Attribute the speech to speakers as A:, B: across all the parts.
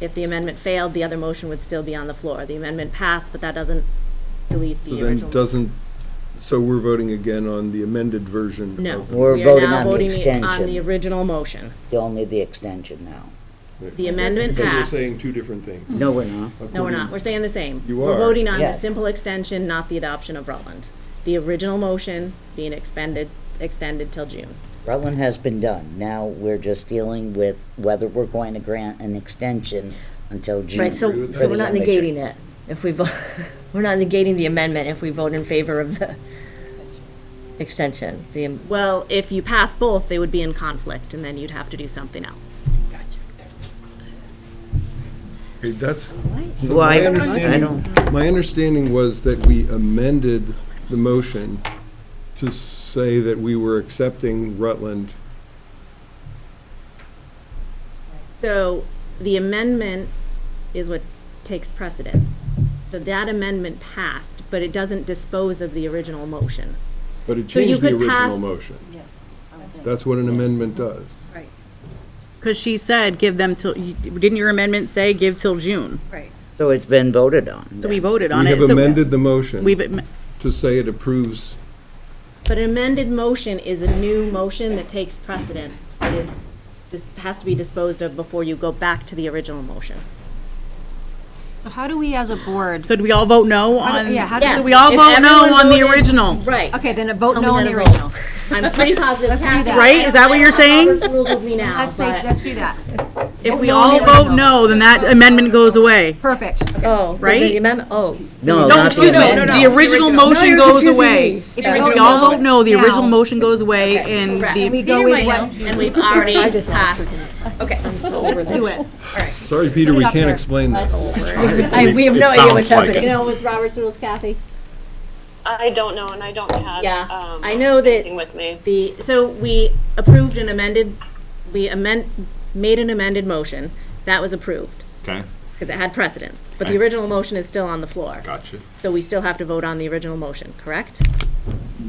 A: If the amendment failed, the other motion would still be on the floor. The amendment passed, but that doesn't delete
B: So
A: the
B: then
A: original.
B: doesn't, so we're voting again on the amended version?
A: No.
B: of-
A: We
C: We're
A: are
C: voting
A: now
C: on the
A: voting On the
C: extension,
A: original motion.
C: only the extension now.
A: The amendment
B: So we're
A: passed.
B: saying two different things.
C: No, we're not.
A: No, we're
B: according-
A: not. We're saying the same.
B: You
A: We're
B: are.
A: voting on the
C: Yes.
A: simple extension, not the adoption of Rutland. The original motion being expended, extended till June.
C: Rutland has been done. Now we're just dealing with whether we're going to grant an extension until June.
D: Right, so,
B: agree with
D: so
B: that.
D: we're not
C: For the immature.
D: negating it, if we vote, we're not negating the amendment if we vote in favor of the extension, the, am-
A: Well, if you pass both, they would be in conflict, and then you'd have to do something else.
B: Okay, That's,
C: Well,
B: my
C: I, I don't,
B: understanding, my understanding was that we amended the motion to say that we were accepting Rutland.
A: So the amendment is what takes precedence. So that amendment passed, but it doesn't dispose of the original motion.
B: But it
A: So you
B: changed the
A: could
B: original
A: pass-
B: motion. Yes. That's what an amendment does.
E: Because she said, give them till, you- didn't your amendment say give till June?
C: so it's been voted on.
E: So we voted on
B: We
E: it.
B: have
E: so
B: amended the motion
E: We've, am-
B: to say it approves,
A: But an amended motion is a new motion that takes precedent. It is, this has to be disposed of before you go back to the original motion.
F: So how do we as a board,
E: so do we all vote no
F: How do-
E: on?
F: yeah, how
A: Yes.
F: does,
E: So we all
A: If
E: vote no
A: everyone
E: on the
A: voted-
E: original.
A: Right.
F: okay, then a vote no
D: me
F: on
D: how
F: the
D: to
F: original.
A: I'm pretty positive.
F: Let's do
A: Cass-
F: that.
E: Right? Is that what you're saying?
A: I don't know the rules with me now,
F: Let's say,
A: but-
F: let's do that.
E: If we
F: no on
E: all
F: the
E: vote
F: original.
E: no, then that amendment goes away.
F: Perfect.
D: oh, right,
E: Right?
D: the amendment, oh,
C: No,
E: No,
C: not the
E: excuse me,
C: amendment.
E: the original motion goes away.
F: If you
E: If we all vote no, the original motion goes away and the,
F: We go with what,
A: And we've already passed.
F: let's do it.
B: sorry, Peter, we can't explain this.
D: we have no idea what's happening.
A: You know, with Robert's rules, Kathy?
G: I don't know, and I don't have.
A: Yeah,
G: um,
A: I know that-
G: anything With me.
A: The, so we approved an amended, we amend, made an amended motion. That was approved
H: Okay,
A: because it had precedence. But the original motion is still on the floor.
H: gotcha.
A: So we still have to vote on the original motion, correct?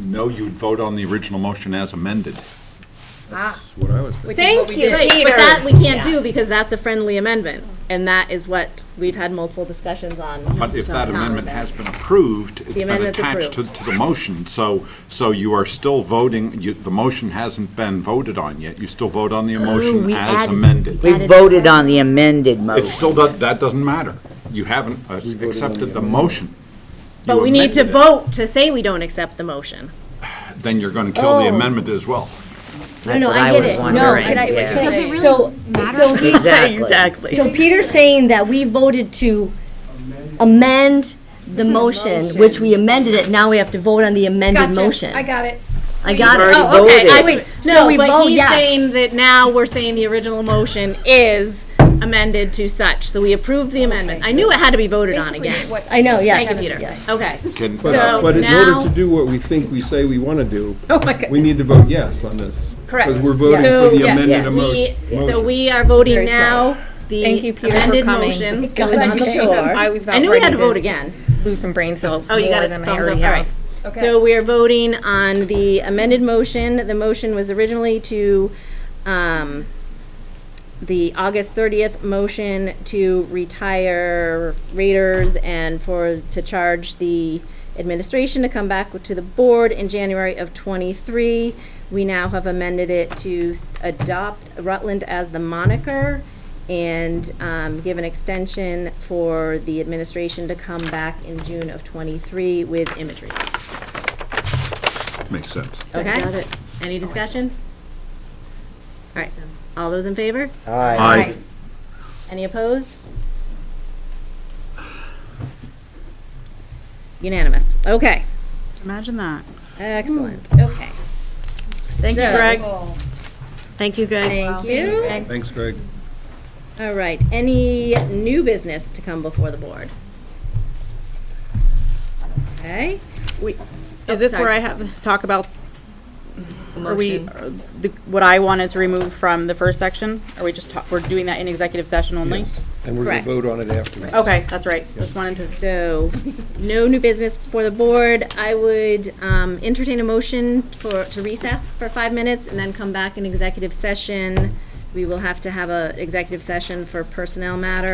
H: No, you'd vote on the original motion as amended.
B: That's what I was thinking.
D: thank you,
A: Right,
D: Peter.
A: but that we can't do because that's a friendly amendment. And that is what we've had multiple discussions on.
H: But if
A: so
H: that
A: not
H: amendment
A: on
H: has been approved, it's been
A: amendment's
H: attached to, to the motion, so, so you are still voting, you, the motion hasn't been voted on yet, you still vote on the
A: Oh,
H: motion
D: we
H: as
D: added-
H: amended.
C: We voted on the amended
H: It
C: motion.
H: still does, that doesn't matter, you haven't uh,
B: voted on the
H: accepted the motion.
A: But
H: You
A: we need to
H: amended
A: vote to say we don't accept the motion.
H: it. Then you're gonna kill the
D: Oh.
H: amendment as well.
C: That's
D: No,
C: what
D: I
C: I
D: get
C: was
D: it, no,
C: wondering.
D: can I,
C: Yeah.
D: can
F: Does it
D: I,
F: really
D: so, so he,
C: Exactly.
D: So Peter's saying that we voted to amend the motion, which we amended it, now we have to vote on the amended motion.
F: I got it.
D: I got it.
C: already
D: Oh, okay.
C: voted.
D: I- wait, So
A: No,
D: we
A: but
D: vote
A: he's
D: yes.
A: saying that now we're saying the original motion is amended to such. So we approved the amendment. I knew it had to be voted on again.
D: I know, yes.
A: Thank you, Peter. Okay.
H: Can,
A: So-
B: But in
A: now-
B: order to do what we think we say we want to do,
I: Oh
B: we need to vote yes on this.
D: Correct.
B: Because we're voting
A: So-
B: for the
A: Yeah.
B: amended emo-
A: We, so
B: motion.
A: we are voting
D: Very
A: now
I: Thank
A: the
I: you, Peter, for
A: amended
I: coming.
A: motion
I: It
A: that
I: was
A: was on the
I: okay.
A: floor.
I: I was about
A: knew we had to
I: ready to-
A: vote again.
I: lose some brain cells
A: Oh, you got
I: more
A: it.
I: than I
A: Thumbs
I: already
A: up. All
I: have.
A: right. So we are voting on the amended motion. The motion was originally to, um, the August thirtieth motion to retire Raiders and for, to charge the administration to come back to the board in January of twenty-three. We now have amended it to s- adopt Rutland as the moniker and, um, give an extension for the administration to come back in June of twenty-three with imagery.
H: makes sense.
D: Got
A: Okay,
D: it.
A: any discussion? All right, all those in favor?
H: Aye.
A: Any opposed? Unanimous, okay,
E: imagine that.
A: excellent, okay. Thank you,
E: Greg,
D: Thank you, Greg.
A: Thank you.
B: Thanks, Greg.
A: All right, any new business to come before the board? Okay,
E: is this where
A: sorry.
E: I have, to talk about, are we, are the- what I wanted to remove from the first section? Are we just, ta- we're doing that in executive session only?
B: And we're going
A: Correct.
B: to vote on it afterwards.
E: Okay, that's right. Just wanted to
A: so, no new business before the board. I would um, entertain a motion for, to recess for five minutes and then come back in executive session. We will have to have a executive session for personnel matter